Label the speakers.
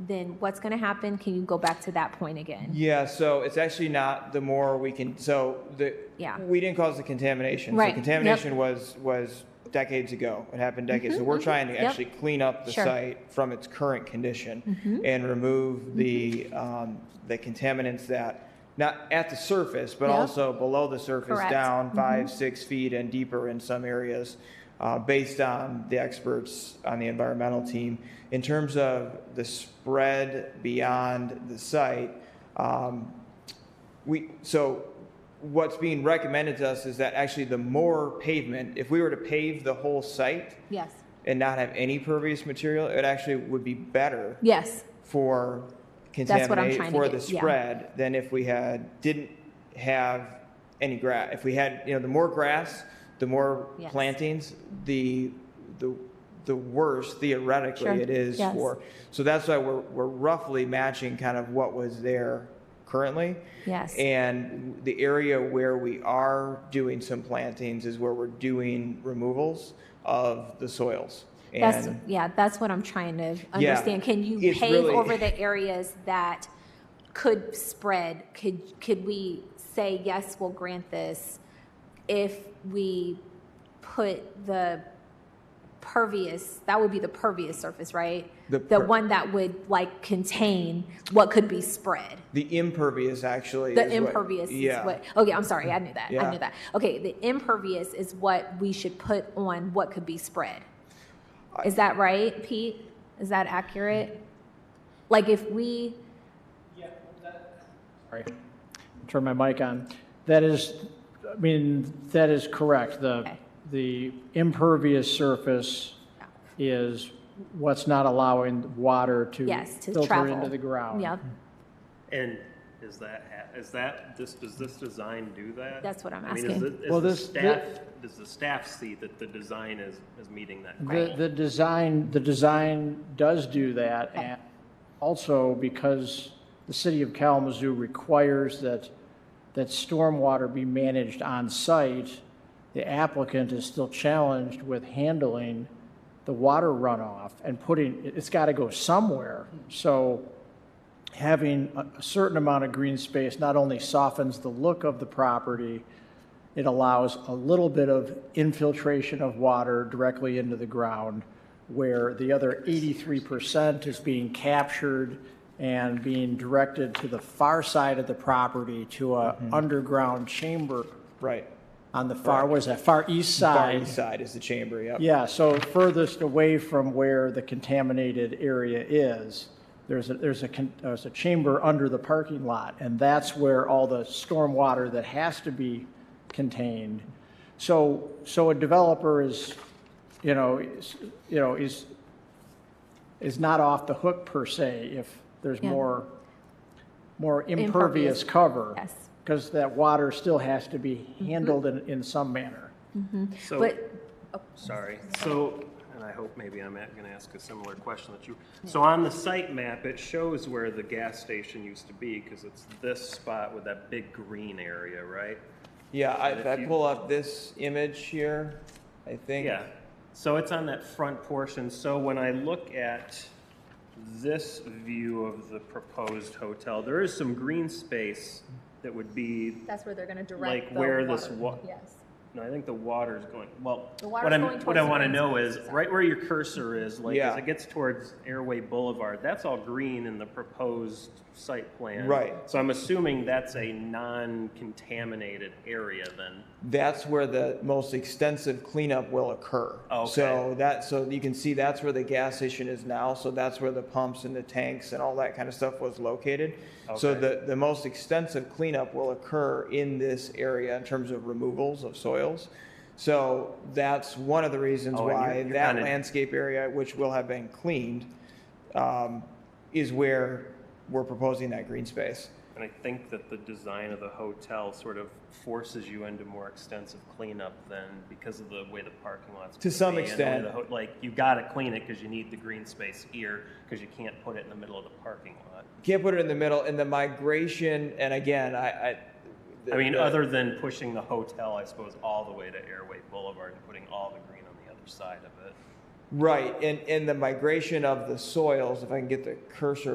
Speaker 1: then what's going to happen? Can you go back to that point again?
Speaker 2: Yeah, so it's actually not the more we can, so the,
Speaker 1: Yeah.
Speaker 2: we didn't cause the contamination.
Speaker 1: Right,
Speaker 2: So
Speaker 1: yep.
Speaker 2: contamination was, was decades ago. It happened decades. So we're trying to
Speaker 1: Mm-hmm. yep.
Speaker 2: actually clean up the
Speaker 1: Sure. Mm-hmm.
Speaker 2: site from its current condition and remove the, um, the contaminants that, not at the surface, but
Speaker 1: Yep.
Speaker 2: also below the surface,
Speaker 1: Correct.
Speaker 2: down five, six feet and deeper in some areas, uh, based on the experts on the environmental team. In terms of the spread beyond the site, um, we, so what's being recommended to us is that actually the more pavement, if we were to pave the whole site
Speaker 1: Yes.
Speaker 2: and not have any pervious material, it actually would be better
Speaker 1: Yes.
Speaker 2: for
Speaker 1: That's what I'm
Speaker 2: contaminate,
Speaker 1: trying to
Speaker 2: for
Speaker 1: get-
Speaker 2: the
Speaker 1: yeah.
Speaker 2: spread than if we had, didn't have any grass. If we had, you know, the more grass, the more
Speaker 1: Yes.
Speaker 2: plantings, the, the, the worse theoretically
Speaker 1: Sure.
Speaker 2: it is
Speaker 1: Yes.
Speaker 2: for. So that's why we're, we're roughly matching kind of what was there currently.
Speaker 1: Yes.
Speaker 2: And the area where we are doing some plantings is where we're doing removals of the soils.
Speaker 1: That's,
Speaker 2: And
Speaker 1: yeah, that's what I'm trying to understand. Can you
Speaker 2: it's
Speaker 1: pave
Speaker 2: really-
Speaker 1: over the areas that could spread? Could, could we say, yes, we'll grant this if we put the pervious, that would be the pervious surface, right?
Speaker 2: The
Speaker 1: The
Speaker 2: per-
Speaker 1: one that would like contain what could be spread.
Speaker 2: the impervious actually.
Speaker 1: The
Speaker 2: is what-
Speaker 1: impervious is
Speaker 2: yeah.
Speaker 1: what, okay, I'm sorry, I knew that, I
Speaker 2: Yeah.
Speaker 1: knew that. Okay, the impervious is what we should put on what could be spread. Is that right, Pete? Is that accurate? Like if we,
Speaker 3: Sorry, turn my mic on. That is, I mean, that is correct. The,
Speaker 1: Okay.
Speaker 3: the impervious surface is what's not allowing water to
Speaker 1: yes, to
Speaker 3: filter
Speaker 1: travel.
Speaker 3: into the ground.
Speaker 1: Yep,
Speaker 4: And is that, ha- is that, this, does this design do that?
Speaker 1: That's what I'm
Speaker 4: I mean, is
Speaker 1: asking.
Speaker 4: the- is
Speaker 3: Well,
Speaker 4: the
Speaker 3: this- thi-
Speaker 4: staff, does the staff see that the design is, is meeting that?
Speaker 3: The, the design, the design does do that, and also because the city of Kalamazoo requires that, that stormwater be managed on-site, the applicant is still challenged with handling the water runoff and putting, it- it's got to go somewhere. So having a a certain amount of green space not only softens the look of the property, it allows a little bit of infiltration of water directly into the ground where the other 83% is being captured and being directed to the far side of the property to a underground chamber
Speaker 2: Mm-hmm. Right.
Speaker 3: on the far, what is that, far east side?
Speaker 2: Far east side is the chamber, yep.
Speaker 3: Yeah, so furthest away from where the contaminated area is, there's a, there's a, con- there's a chamber under the parking lot, and that's where all the stormwater that has to be contained. So, so a developer is, you know, is, you know, is, is not off the hook per se if there's
Speaker 1: Yeah.
Speaker 3: more, more
Speaker 1: Impervious,
Speaker 3: impervious cover.
Speaker 1: yes.
Speaker 3: Because that water still has to be handled in, in some manner.
Speaker 4: So-
Speaker 1: but,
Speaker 4: Sorry. So, and I hope maybe I'm going to ask a similar question that you, so on the site map, it shows where the gas station used to be because it's this spot with that big green area, right?
Speaker 2: Yeah, I- if I
Speaker 4: If you-
Speaker 2: pull up this image here, I think.
Speaker 4: Yeah. So it's on that front portion. So when I look at this view of the proposed hotel, there is some green space that would be,
Speaker 1: that's where they're going to
Speaker 4: direct Like the where this water. wa-
Speaker 1: Yes.
Speaker 4: no, I think the water's going, well,
Speaker 1: The water's
Speaker 4: what I'm,
Speaker 1: going
Speaker 4: what I
Speaker 1: towards the
Speaker 4: want to
Speaker 1: green
Speaker 4: know
Speaker 1: space,
Speaker 4: is,
Speaker 1: is that-
Speaker 4: right where your cursor is, like, as
Speaker 2: Yeah.
Speaker 4: it gets towards Airway Boulevard, that's all green in the proposed site plan.
Speaker 2: Right.
Speaker 4: So I'm assuming that's a non-contaminated area then.
Speaker 2: That's where the most extensive cleanup will occur.
Speaker 4: Okay.
Speaker 2: So that, so you can see that's where the gas station is now, so that's where the pumps and the tanks and all that kind of stuff was located. So
Speaker 4: Okay.
Speaker 2: the, the most extensive cleanup will occur in this area in terms of removals of soils. So that's one of the reasons
Speaker 4: Oh, and you're-
Speaker 2: why
Speaker 4: you're
Speaker 2: that
Speaker 4: kinda-
Speaker 2: landscape area, which will have been cleaned, um, is where we're proposing that green space.
Speaker 4: And I think that the design of the hotel sort of forces you into more extensive cleanup than because of the way the parking lots.
Speaker 2: To some
Speaker 4: be and the way
Speaker 2: extent.
Speaker 4: the ho- Like, you gotta clean it because you need the green space here, because you can't put it in the middle of the parking lot.
Speaker 2: Can't put it in the middle, and the migration, and again, I, I.
Speaker 4: I mean,
Speaker 2: the-
Speaker 4: other than pushing the hotel, I suppose, all the way to Airway Boulevard and putting all the green on the other side of it.
Speaker 2: Right, and, and the migration of the soils, if I can get the cursor